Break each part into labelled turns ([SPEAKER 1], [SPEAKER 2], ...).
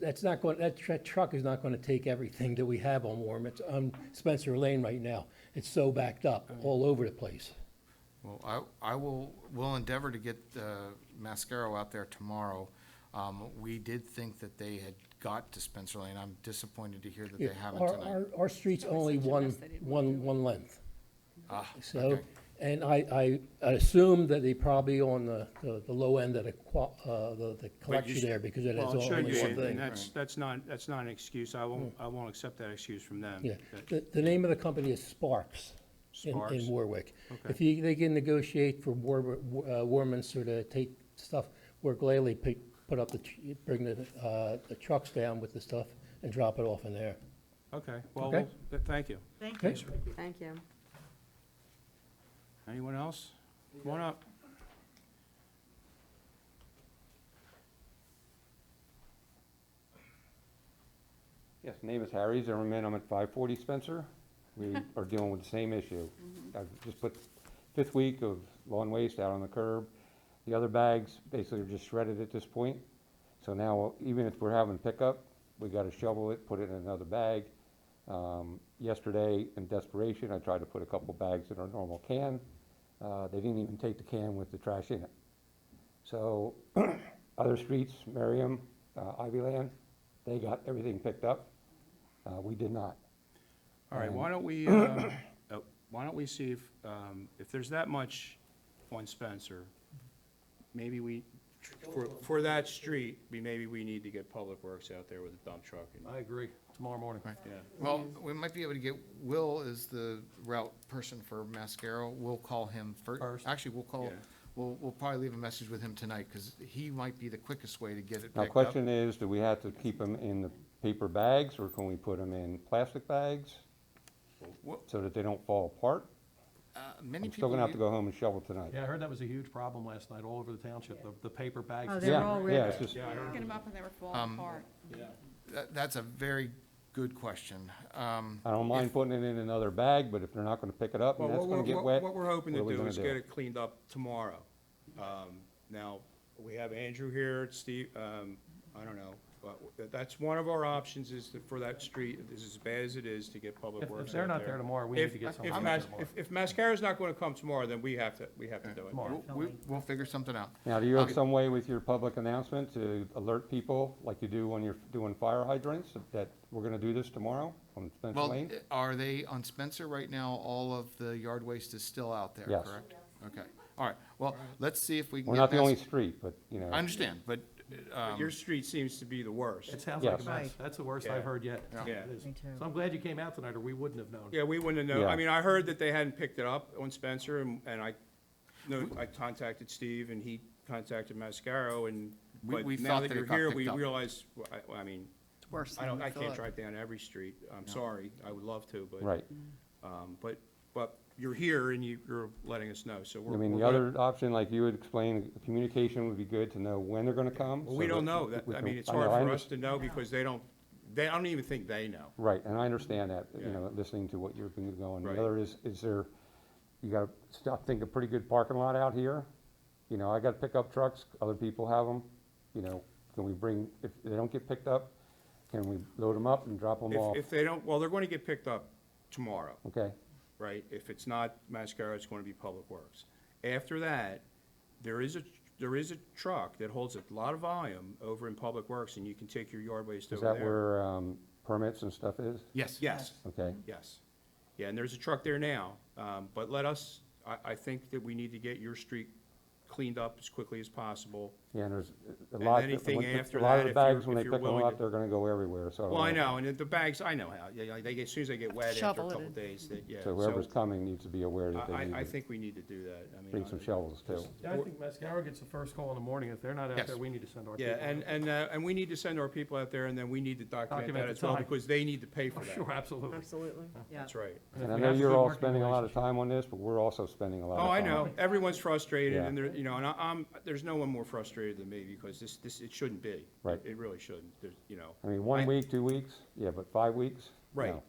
[SPEAKER 1] that's not going, that tr- truck is not gonna take everything that we have on Warm. It's on Spencer Lane right now. It's so backed up, all over the place.
[SPEAKER 2] Well, I, I will, will endeavor to get uh, Mascaro out there tomorrow. Um, We did think that they had got to Spencer Lane. I'm disappointed to hear that they
[SPEAKER 1] Yeah,
[SPEAKER 2] haven't
[SPEAKER 1] Our,
[SPEAKER 2] tonight.
[SPEAKER 1] our, our street's only one, one, one length.
[SPEAKER 2] Ah,
[SPEAKER 1] So,
[SPEAKER 2] okay.
[SPEAKER 1] and I, I I assume that they probably on the, the the low end of the, qua- uh, the, the collection
[SPEAKER 3] should-
[SPEAKER 1] there because it is
[SPEAKER 3] Well, it
[SPEAKER 1] all-
[SPEAKER 3] should
[SPEAKER 1] only
[SPEAKER 3] be,
[SPEAKER 1] one
[SPEAKER 3] and
[SPEAKER 1] thing. Hmm.
[SPEAKER 3] that's, that's not, that's not an excuse. I won't, I won't accept that excuse from them.
[SPEAKER 1] Yeah,
[SPEAKER 3] That-
[SPEAKER 1] the, the name of the company is Sparks in,
[SPEAKER 3] Sparks.
[SPEAKER 1] in Warwick. If
[SPEAKER 3] Okay.
[SPEAKER 1] you, they can negotiate for War, uh, Warminster to take stuff, work Laley, pick, put up the, tr- bring the, uh, the trucks down with the stuff and drop it off in there.
[SPEAKER 3] Okay, well,
[SPEAKER 1] Okay.
[SPEAKER 3] we'll- th- thank you.
[SPEAKER 4] Thank
[SPEAKER 1] Okay.
[SPEAKER 4] you.
[SPEAKER 5] Thank you.
[SPEAKER 3] Anyone else? Come on up.
[SPEAKER 6] Yes, name is Harry's, I remain, I'm at five forty Spencer. We are dealing with the same issue. I've just put fifth week of lawn waste out on the curb. The other bags basically are just shredded at this point. So now, even if we're having pickup, we gotta shovel it, put it in another bag. Um, yesterday, in desperation, I tried to put a couple bags in our normal can. Uh, they didn't even take the can with the trash in it. So other streets, Merriam, uh, Ivy Land, they got everything picked up. Uh, We did not.
[SPEAKER 1] Um,
[SPEAKER 3] All right, why don't we, uh, uh, why don't we see if, um, if there's that much on Spencer, maybe we, tr- for, for that street, we, maybe we need to get Public Works out there with a dump truck and,
[SPEAKER 7] I agree, tomorrow morning.
[SPEAKER 3] yeah.
[SPEAKER 2] Well, we might be able to get, Will is the route person for Mascaro. We'll call him first.
[SPEAKER 7] First.
[SPEAKER 2] Actually, we'll call,
[SPEAKER 3] Yeah.
[SPEAKER 2] we'll, we'll probably leave a message with him tonight because he might be the quickest way to get it
[SPEAKER 6] Now,
[SPEAKER 2] picked up.
[SPEAKER 6] question is, do we have to keep them in the paper bags, or can we put them in plastic bags
[SPEAKER 3] Well,
[SPEAKER 6] so that they don't fall apart?
[SPEAKER 2] Uh, Many
[SPEAKER 6] I'm still
[SPEAKER 2] people,
[SPEAKER 6] gonna have to
[SPEAKER 2] u-
[SPEAKER 6] go home and shovel tonight.
[SPEAKER 7] Yeah, I heard that was a huge problem last night, all over the township, the, the paper bags.
[SPEAKER 5] Oh,
[SPEAKER 7] and
[SPEAKER 5] they're
[SPEAKER 7] stuff.
[SPEAKER 6] Yeah,
[SPEAKER 5] all
[SPEAKER 6] Yeah, it's
[SPEAKER 5] ripped.
[SPEAKER 6] just,
[SPEAKER 3] Yeah, I heard,
[SPEAKER 4] Thinking about when they were falling apart.
[SPEAKER 2] that- that's a very good question. Um,
[SPEAKER 6] I don't mind putting it in another bag, but if they're not gonna pick it up
[SPEAKER 3] Well,
[SPEAKER 6] and that's
[SPEAKER 3] what we're,
[SPEAKER 6] gonna get
[SPEAKER 3] what
[SPEAKER 6] wet.
[SPEAKER 3] what we're hoping to
[SPEAKER 6] what are we
[SPEAKER 3] do
[SPEAKER 6] gonna
[SPEAKER 3] is get it cleaned up tomorrow. Um, Now, we have Andrew here, Steve, um, I don't know, but that- that's one of our options is to- for that street, this is as bad as it is, to get Public
[SPEAKER 7] If,
[SPEAKER 3] Works
[SPEAKER 7] if they're
[SPEAKER 3] out
[SPEAKER 7] not there tomorrow, we need
[SPEAKER 3] If-
[SPEAKER 7] to get
[SPEAKER 3] if
[SPEAKER 7] something
[SPEAKER 3] Mas-
[SPEAKER 7] out tomorrow.
[SPEAKER 3] If, if Mascaro's not gonna come tomorrow, then we have to, we have to do it.
[SPEAKER 7] Tomorrow.
[SPEAKER 2] we- We'll figure something out.
[SPEAKER 6] Now, do you have some way with your public announcement to alert people, like you do when you're doing fire hydrants, that we're gonna do this tomorrow on Spencer
[SPEAKER 2] Well,
[SPEAKER 6] Lane?
[SPEAKER 3] uh,
[SPEAKER 2] are they on Spencer right now? All of the yard waste is still out there,
[SPEAKER 6] Yes.
[SPEAKER 2] correct? Okay, all right. Well, let's see if we can.
[SPEAKER 6] We're
[SPEAKER 2] get
[SPEAKER 6] not the only
[SPEAKER 2] past-
[SPEAKER 6] street, but, you know.
[SPEAKER 2] I understand, but,
[SPEAKER 3] But
[SPEAKER 2] um,
[SPEAKER 3] Your street seems to be the worst.
[SPEAKER 7] It sounds like a
[SPEAKER 6] Yes.
[SPEAKER 7] mess,
[SPEAKER 5] Right.
[SPEAKER 7] that's the worst
[SPEAKER 3] Yeah.
[SPEAKER 7] I've heard yet.
[SPEAKER 2] Yeah.
[SPEAKER 3] Yeah.
[SPEAKER 7] It is.
[SPEAKER 5] Me too.
[SPEAKER 7] So I'm glad you came out tonight, or we wouldn't have known.
[SPEAKER 3] Yeah, we wouldn't have known. I
[SPEAKER 6] Yeah.
[SPEAKER 3] mean, I heard that they hadn't picked it up on Spencer, and, and I, no, I contacted Steve, and he contacted Mascaro, and,
[SPEAKER 2] We-
[SPEAKER 3] but
[SPEAKER 2] we
[SPEAKER 3] now
[SPEAKER 2] thought
[SPEAKER 3] that
[SPEAKER 2] that it
[SPEAKER 3] you're
[SPEAKER 2] got
[SPEAKER 3] here,
[SPEAKER 2] picked
[SPEAKER 3] we
[SPEAKER 2] up.
[SPEAKER 3] realize, well, I, well, I mean,
[SPEAKER 5] It's worse
[SPEAKER 3] I
[SPEAKER 5] than
[SPEAKER 3] don't,
[SPEAKER 5] we
[SPEAKER 3] I can't
[SPEAKER 5] thought.
[SPEAKER 3] drive down every street. I'm sorry, I would love to, but.
[SPEAKER 6] Right.
[SPEAKER 3] Um, but, but you're here and you, you're letting us know, so we're.
[SPEAKER 6] I mean,
[SPEAKER 3] we're
[SPEAKER 6] the
[SPEAKER 3] gonna-
[SPEAKER 6] other option, like you had explained, communication would be good to know when they're gonna come.
[SPEAKER 3] Well, we
[SPEAKER 6] so
[SPEAKER 3] don't know. That,
[SPEAKER 6] we
[SPEAKER 3] I
[SPEAKER 6] can-
[SPEAKER 3] mean, it's
[SPEAKER 6] know,
[SPEAKER 3] hard
[SPEAKER 6] I
[SPEAKER 3] for
[SPEAKER 6] under-
[SPEAKER 3] us to know because they don't, they, I don't even think they know.
[SPEAKER 6] Right, and I understand that, you
[SPEAKER 3] Yeah.
[SPEAKER 6] know, listening to what you've been going.
[SPEAKER 3] Right.
[SPEAKER 6] The other is, is there, you gotta stop, think a pretty good parking lot out here. You know, I got pickup trucks, other people have them, you know, can we bring, if they don't get picked up, can we load them up and drop them off?
[SPEAKER 3] If, if they don't, well, they're going to get picked up tomorrow.
[SPEAKER 6] Okay,
[SPEAKER 3] right? If it's not Mascaro, it's going to be Public Works. After that, there is a, there is a truck that holds a lot of volume over in Public Works, and you can take your yard waste
[SPEAKER 6] is
[SPEAKER 3] over
[SPEAKER 6] that
[SPEAKER 3] there.
[SPEAKER 6] where, um, permits and stuff is?
[SPEAKER 2] yes.
[SPEAKER 3] Yes,
[SPEAKER 6] Okay,
[SPEAKER 3] yes. Yeah, and there's a truck there now, um, but let us, I, I think that we need to get your street cleaned up as quickly as possible.
[SPEAKER 6] yeah, and there's a
[SPEAKER 3] And
[SPEAKER 6] lot,
[SPEAKER 3] anything
[SPEAKER 6] when-
[SPEAKER 3] after
[SPEAKER 6] a lot
[SPEAKER 3] that,
[SPEAKER 6] of
[SPEAKER 3] if
[SPEAKER 6] the
[SPEAKER 3] you're-
[SPEAKER 6] bags, when
[SPEAKER 3] if
[SPEAKER 6] they
[SPEAKER 3] you're
[SPEAKER 6] pick them
[SPEAKER 3] willing
[SPEAKER 6] up,
[SPEAKER 3] to-
[SPEAKER 6] they're gonna go everywhere, so.
[SPEAKER 3] Well, I know, and the bags, I know how, yeah, like, they, get- as soon as they get wet after a
[SPEAKER 5] Shovel it
[SPEAKER 3] couple
[SPEAKER 5] in.
[SPEAKER 3] days, that, yeah.
[SPEAKER 6] So whoever's coming needs to be aware
[SPEAKER 3] I,
[SPEAKER 6] that they
[SPEAKER 3] I- I
[SPEAKER 6] need to
[SPEAKER 3] think uh, we need to do that, I mean.
[SPEAKER 6] bring some
[SPEAKER 3] I-
[SPEAKER 6] shovels too.
[SPEAKER 7] Yeah, I think Mascaro gets the first call in the morning. If they're not
[SPEAKER 2] Yes.
[SPEAKER 7] out there, we need to send our people.
[SPEAKER 3] Yeah, and, and, uh, and we need to send our people out there, and then we need to document
[SPEAKER 7] Document
[SPEAKER 3] that
[SPEAKER 7] the
[SPEAKER 3] as well,
[SPEAKER 7] time.
[SPEAKER 3] because they need to pay for
[SPEAKER 7] Oh, Sure,
[SPEAKER 3] that.
[SPEAKER 7] absolutely.
[SPEAKER 5] Absolutely, yeah.
[SPEAKER 3] That's right.
[SPEAKER 7] if
[SPEAKER 6] And I
[SPEAKER 7] we
[SPEAKER 6] know
[SPEAKER 7] have a
[SPEAKER 6] you're
[SPEAKER 7] good
[SPEAKER 6] all
[SPEAKER 7] working
[SPEAKER 6] spending a lot of
[SPEAKER 7] relationship-
[SPEAKER 6] time on this, but we're also spending a lot of time.
[SPEAKER 3] Oh, I
[SPEAKER 6] on
[SPEAKER 7] Uh-huh.
[SPEAKER 3] know,
[SPEAKER 6] it.
[SPEAKER 3] everyone's frustrated,
[SPEAKER 6] Yeah.
[SPEAKER 3] and there, you know, and I- I'm, there's no one more frustrated than me, because this, this, it shouldn't be.
[SPEAKER 6] Right.
[SPEAKER 3] It really shouldn't, there's, you know.
[SPEAKER 6] I mean, one
[SPEAKER 3] I-
[SPEAKER 6] week, two weeks, yeah, but five weeks?
[SPEAKER 3] Right.
[SPEAKER 6] No.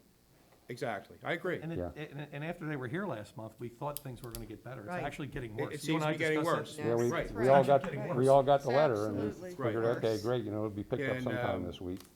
[SPEAKER 3] exactly, I agree.
[SPEAKER 7] And, it-
[SPEAKER 6] Yeah.
[SPEAKER 7] and, and after they were here last month, we thought things were gonna get better. It's
[SPEAKER 4] Right.
[SPEAKER 7] actually getting
[SPEAKER 3] It-
[SPEAKER 7] worse.
[SPEAKER 3] It
[SPEAKER 7] You
[SPEAKER 3] seems
[SPEAKER 7] and
[SPEAKER 3] to
[SPEAKER 7] I
[SPEAKER 3] be getting
[SPEAKER 7] discussed
[SPEAKER 3] worse.
[SPEAKER 7] this.
[SPEAKER 4] Yeah, we-
[SPEAKER 3] Right.
[SPEAKER 4] It's
[SPEAKER 6] We all
[SPEAKER 4] actually
[SPEAKER 6] got,
[SPEAKER 4] getting
[SPEAKER 6] we
[SPEAKER 4] worse.
[SPEAKER 6] all got the letter and we
[SPEAKER 4] Absolutely
[SPEAKER 6] figured,
[SPEAKER 3] Right.
[SPEAKER 6] okay,
[SPEAKER 4] worse.
[SPEAKER 6] great, you know, it'll be picked
[SPEAKER 3] And,
[SPEAKER 6] up sometime
[SPEAKER 3] um,
[SPEAKER 6] this week.